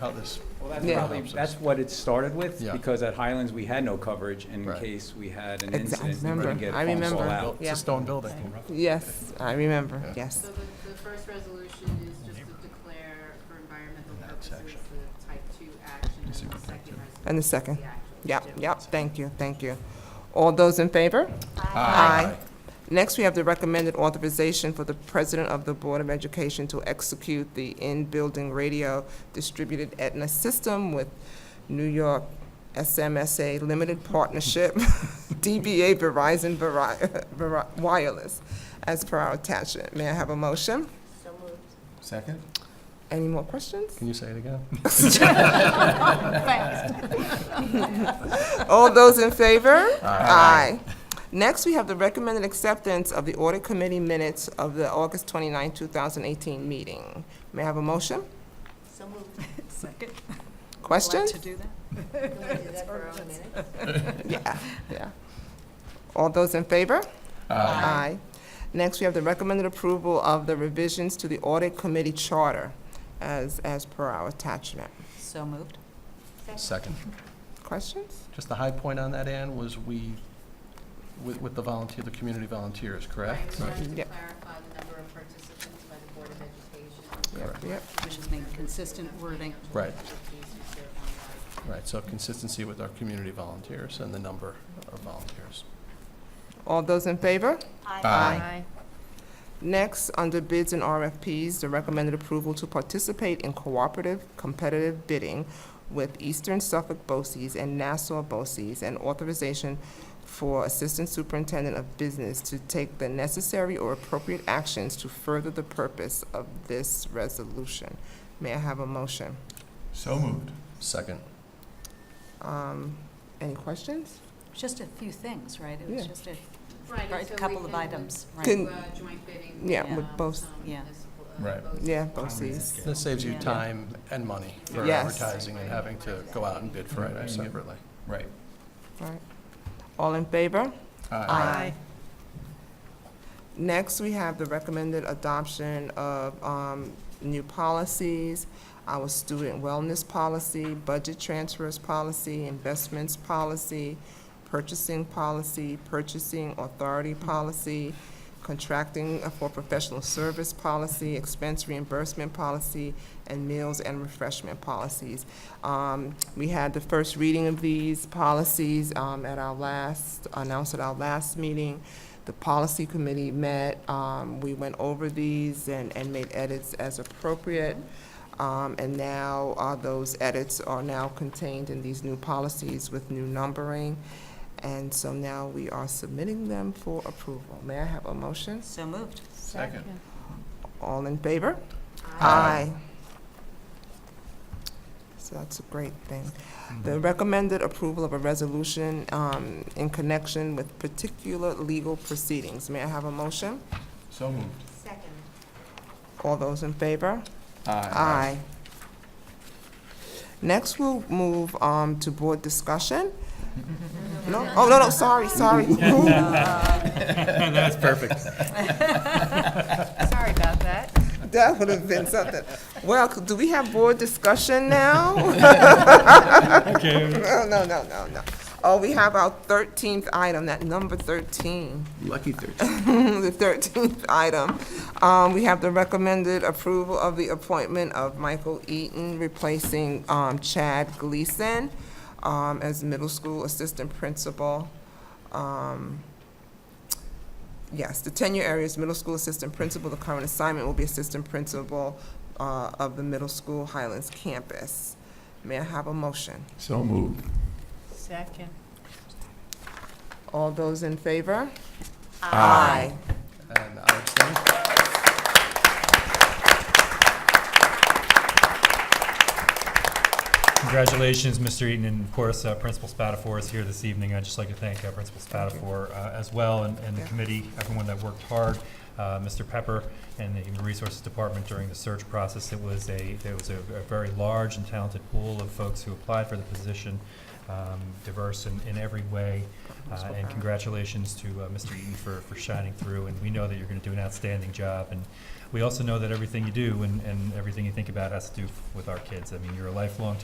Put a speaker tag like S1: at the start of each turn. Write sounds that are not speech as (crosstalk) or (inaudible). S1: how this,
S2: Well, that's
S3: Yeah.
S2: probably, that's what it started with,
S1: Yeah.
S2: because at Highlands, we had no coverage in
S1: Right.
S2: case we had an
S3: Exa- I
S2: incident, we couldn't
S3: remember.
S2: get
S3: I
S2: phones all
S3: remember.
S2: out.
S1: it's a stone building.
S3: Yes, I remember,
S1: Yeah.
S3: yes.
S4: So the, the first resolution is just to declare for environmental purposes the type two action, and the second resolution
S3: And the
S4: is
S3: second.
S4: the actual.
S3: Yep,
S4: Yeah.
S3: yep, thank you, thank you. All those in favor? Aye. Next, we have the recommended authorization for the President of the Board of Education to execute the in-building radio distributed Aetna system with New York SMSA Limited Partnership, (laughs) DBA Verizon Veri- Veri- Wireless, as per our attachment. May I have a motion?
S1: (laughs) Second?
S3: Any more questions?
S1: Can you say it again?
S3: All those in favor?
S1: Aye.
S3: Next, we have the recommended acceptance of the audit committee minutes of the August 29, 2018 meeting. May I have a motion?
S1: (laughs)
S4: So moved.
S5: Second.
S3: Questions?
S5: to do that?
S4: Can we do
S5: (laughs)
S4: that for our own minutes?
S3: Yeah, yeah. All those in favor? Aye. Next, we have the recommended approval of the revisions to the audit committee charter as, as per our attachment.
S5: So moved.
S1: Second.
S3: Questions?
S1: Just the high point on that, Ann, was we, with, with the volunteer, the community volunteers, correct?
S4: Right, we wanted to
S3: Yep.
S4: clarify the number of participants by the Board of Education.
S3: Yep,
S1: Correct.
S3: yep.
S5: We just need consistent wording.
S1: Right.
S4: Expertise who serve on
S1: Right, so consistency with our community volunteers and the number of volunteers.
S3: All those in favor?
S1: Aye.
S3: Next, under bids and RFPs, the recommended approval to participate in cooperative competitive bidding with Eastern Suffolk BOCES and Nassau BOCES and authorization for Assistant Superintendent of Business to take the necessary or appropriate actions to further the purpose of this resolution. May I have a motion?
S1: So moved. Second.
S3: Um, any questions?
S5: Just a few things, right? It
S3: Yeah.
S5: was just a,
S4: Right, and
S5: right, a
S4: so we
S5: couple of
S4: can
S5: items,
S3: Can-
S5: right?
S4: do, uh, Joint bidding.
S3: Yeah,
S5: with
S4: um,
S3: both.
S4: some
S5: Yeah.
S4: municipal, uh,
S1: Right.
S4: both.
S3: Yeah, BOCES.
S1: This saves you
S5: Yeah.
S1: time and money for
S3: Yes.
S1: advertising and having to go out and bid for items separately. Right.
S3: All in favor? Aye. Next, we have the recommended adoption of um, new policies, our student wellness policy, budget transfers policy, investments policy, purchasing policy, purchasing authority policy, contracting for professional service policy, expense reimbursement policy, and meals and refreshment policies. Um, We had the first reading of these policies um, at our last, announced at our last meeting. The policy committee met, um, we went over these and, and made edits as appropriate. Um, and now, uh, those edits are now contained in these new policies with new numbering. And so now we are submitting them for approval. May I have a motion?
S5: So moved.
S1: Second.
S3: All in favor?
S1: Aye.
S3: So that's a great thing. The recommended approval of a resolution um, in connection with particular legal proceedings. May I have a motion?
S1: So moved.
S4: Second.
S3: All those in favor? Next, we'll move um, to board discussion. No, oh, no, no, sorry, sorry.
S1: That's perfect.
S5: Sorry about that.
S3: (laughs) That would have been something. Well, c- do we have board discussion now? (laughs) No, no, no, no, no. Oh, we have our thirteenth item, that number thirteen.
S1: Lucky thirteen.
S3: (laughs) The thirteenth item. Um, we have the recommended approval of the appointment of Michael Eaton replacing, um, Chad Gleason, um, as middle school assistant principal. Um, Yes, the tenure area is middle school assistant principal. The current assignment will be assistant principal uh, of the middle school Highlands campus. May I have a motion?
S1: So moved.
S5: Second.
S3: All those in favor?
S1: And I abstain.
S6: Congratulations, Mr. Eaton, and of course, uh, Principal Spatafor is here this evening. I'd just like to thank uh, Principal Spatafor uh, as well, and and the
S3: Yeah.
S6: committee, everyone that worked hard, uh, Mr. Pepper and the Human Resources Department during the search process. It was a, there was a a very large and talented pool of folks who applied for the position, uh, um, diverse in, in every way.
S3: That's
S6: Uh,
S3: what
S6: And
S3: I-
S6: congratulations to uh, Mr. Eaton for, for shining through, and we know that you're going to do an outstanding job. And we also know that everything you do and, and everything you think about has to do f- with our kids. I mean, you're a lifelong